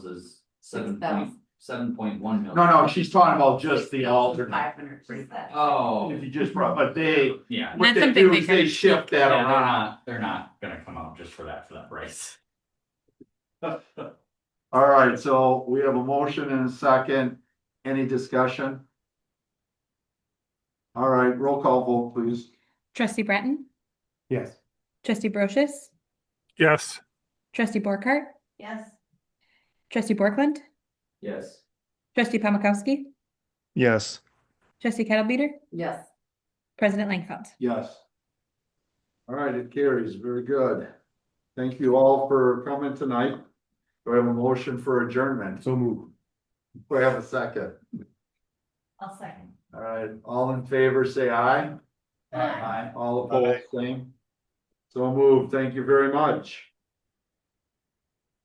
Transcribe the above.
is Six seven point, thousand. seven point one million. No, no, she's talking about just the alternate. Five hundred, is that? Oh, If you just brought, but they, yeah. what That's they something do they is can- they shift Yeah, that They're around. not, they're not gonna come out just for that, for that price. All right, so we have a motion and a second. Any discussion? All right, roll call vote, please. Trustee Breton, Yes. trustee Brochus, Yes. trustee Borkart, Yes, trustee Borkland, Yes. trustee Pomakowski, Yes. trustee Kettlebeater, yes, president Langfeld. Yes. All right, it carries. Very good. Thank you all for coming tonight. Do I have a motion for adjournment? So move. Do I have a second? I'll second. All right, all in favor, say aye. Aye. All opposed, same. So moved. Thank you very much.